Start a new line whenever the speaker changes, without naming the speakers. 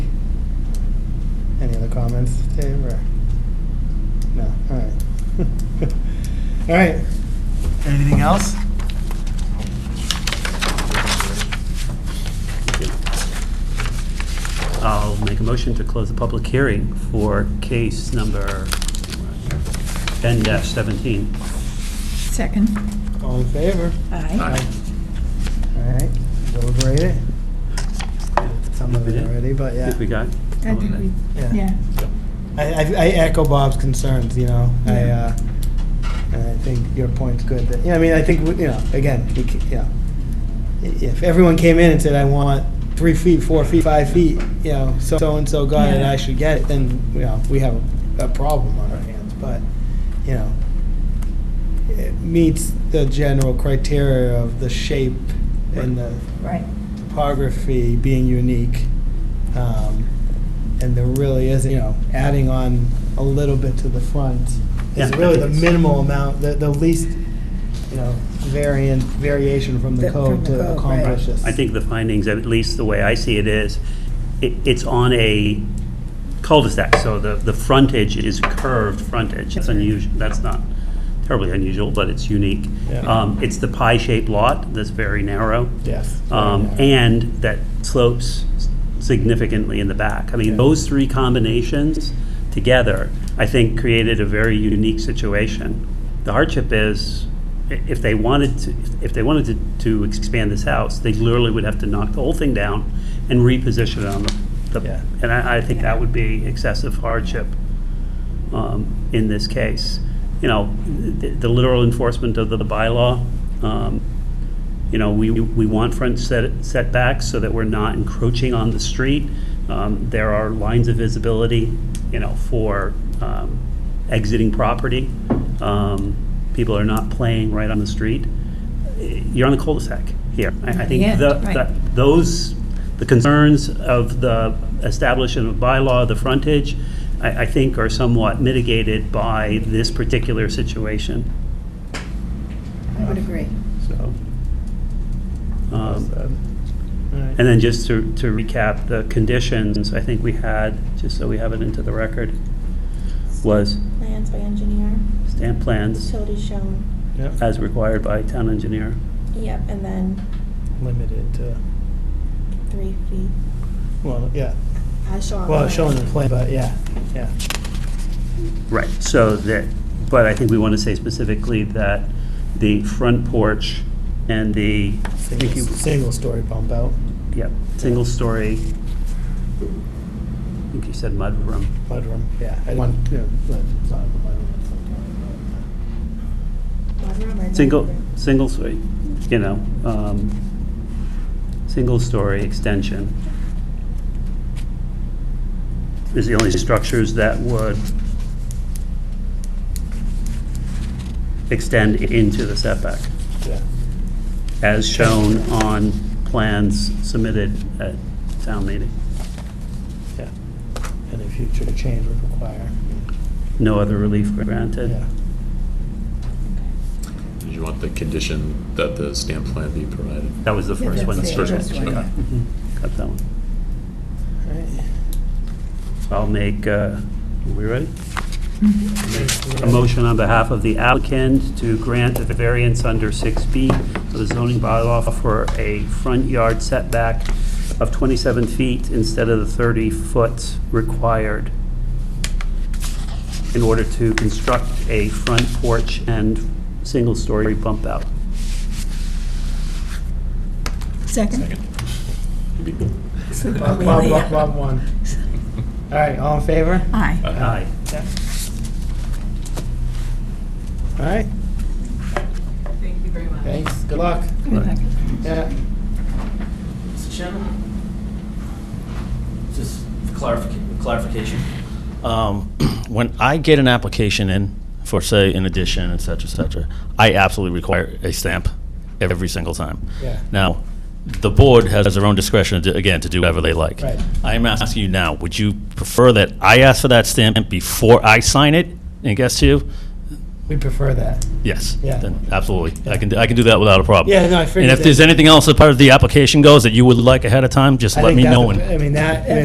comments, Dave, or? No, all right. All right. Anything else?
I'll make a motion to close the public hearing for case number 10-17.
Second.
All in favor?
Aye.
All right, deliberate it. Some of
We
it
did?
already, but yeah.
Think we got?
I think we,
Yeah.
yeah.
I, I I echo Bob's concerns, you know, I, uh, and I think your point's good, that, yeah, I mean, I think, we- you know, again, we, ca- you know, i- if everyone came in and said, I want three feet, four feet, five feet, you know, so- so-and-so got it, I should get it, then, you know, we have a problem on our hands, but, you know, it meets the general criteria of the shape and the
Right.
topography being unique. Um, and there really isn't, you know, adding on a little bit to the front
Yeah, I
is really
think
the
it's-
minimal amount, the, the least, you know, variant, variation from the
That- from
code
the
to
code,
accomplish
right.
this.
I think the findings, at least the way I see it is, it, it's on a cul-de-sac, so the, the frontage is curved frontage. That's unusual, that's not terribly unusual, but it's unique.
Yeah.
Um, It's the pie-shaped lot that's very narrow.
Yes.
um, and that slopes significantly in the back. I mean,
Yeah.
those three combinations together, I think, created a very unique situation. The hardship is, i- if they wanted to, if they wanted to, to expand this house, they literally would have to knock the whole thing down and reposition it on the,
Yeah.
the, and I, I think that would be excessive hardship um, in this case. You know, the, the literal enforcement of the bylaw, um, you know, we, we want front set setbacks so that we're not encroaching on the street. Um, There are lines of visibility, you know, for um, exiting property. Um, People are not playing right on the street. You're on the cul-de-sac here. I I think
Yeah,
the-
right.
the- those, the concerns of the establishment of bylaw, the frontage, I, I think are somewhat mitigated by this particular situation,
I would agree.
so. um,
Alright.
And then just to, to recap, the conditions, I think we had, just so we have it into the record, was
Plans by engineer,
stamp plans
utilities shown,
Yep.
as required by town engineer.
yep, and then
Limited to,
three feet.
well, yeah,
As shown. on
well,
plan.
showing the plan, but yeah, yeah.
Right, so that, but I think we want to say specifically that the front porch and the, I think you-
Single, single story bump out,
yeah, single story, I think you said mudroom.
mudroom, yeah. I One, you know, it's not a mudroom, it's like-
Mudroom or no
Single,
mudroom?
single story, you know, um, single story extension. Is the only structures that would extend into the setback,
Yeah.
as shown on plans submitted at town meeting.
Yeah, any future change would require,
No other relief granted.
yeah.
Did you want the condition that the stamp plan be provided?
That was the
Yeah,
first one.
that's
the
it,
first
that's
one,
right.
okay.
Mhm, Got that one.
Alright.
I'll make, uh, are we ready?
Mhm.
A motion on behalf of the applicant to grant a variance under 6B of the zoning bylaw for a front yard setback of 27 feet instead of the 30 foot required in order to construct a front porch and single-story bump out.
Second.
Second. Maybe.
Super.
Bob, Bob, Bob, Bob won. Alright, all in favor?
Aye.
Aye.
Alright,
Thank you very much.
thanks, good luck.
Good luck.
Yeah,
Mr. Chairman? Just for clarific- clarification. Um, When I get an application in for, say, an addition, et cetera, et cetera, I absolutely require a stamp every single time.
Yeah.
Now, the board has their own discretion, to- again, to do whatever they like.
Right.
I am asking you now, would you prefer that I ask for that stamp before I sign it and guess to you?
we prefer that.
Yes.
Yeah.
Then absolutely. I can, I can do that without a problem.
Yeah, no, I figured
And if
that-
there's anything else as part of the application goes that you would like ahead of time, just
I
let
think
me
that's
know.
a-
and-
I mean, that,